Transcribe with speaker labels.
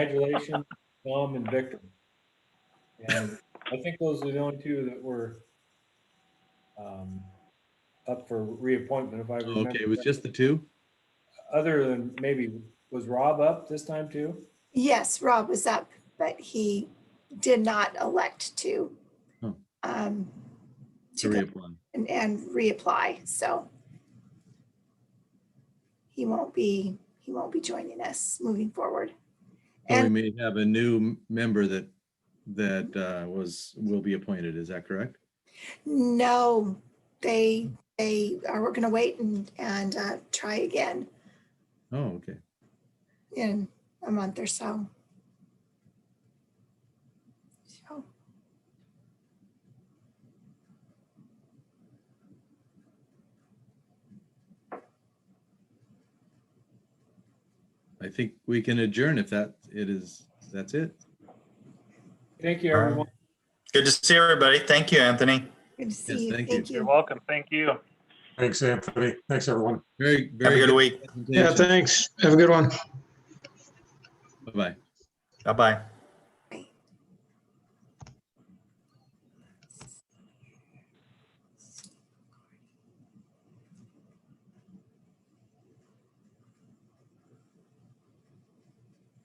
Speaker 1: Congratulations, Tom and Victor. And I think those are the only two that were um, up for reappointment, if I remember.
Speaker 2: Okay, it was just the two?
Speaker 1: Other than maybe, was Rob up this time too?
Speaker 3: Yes, Rob was up, but he did not elect to
Speaker 2: Oh.
Speaker 3: um,
Speaker 2: To
Speaker 3: to go
Speaker 2: reapply.
Speaker 3: and- and reapply, so he won't be, he won't be joining us moving forward.
Speaker 2: So Oh, we
Speaker 3: And
Speaker 2: may have a new m- member that, that uh, was, will be appointed. Is that correct?
Speaker 3: no, they, they are, we're gonna wait and, and uh, try again
Speaker 2: Oh, okay.
Speaker 3: in a month or so. So,
Speaker 2: I think we can adjourn if that, it is, that's it.
Speaker 1: Thank you, everyone.
Speaker 4: Good to see everybody. Thank you, Anthony.
Speaker 3: Good to see you.
Speaker 2: thank you.
Speaker 3: Thank
Speaker 5: You're
Speaker 3: you.
Speaker 5: welcome. Thank you.
Speaker 6: Thanks, Anthony. Thanks, everyone.
Speaker 2: Very,
Speaker 4: Have a
Speaker 2: very.
Speaker 4: good week.
Speaker 7: Yeah,
Speaker 2: presentation.
Speaker 7: thanks. Have a good one.
Speaker 2: Bye-bye.
Speaker 4: Bye-bye.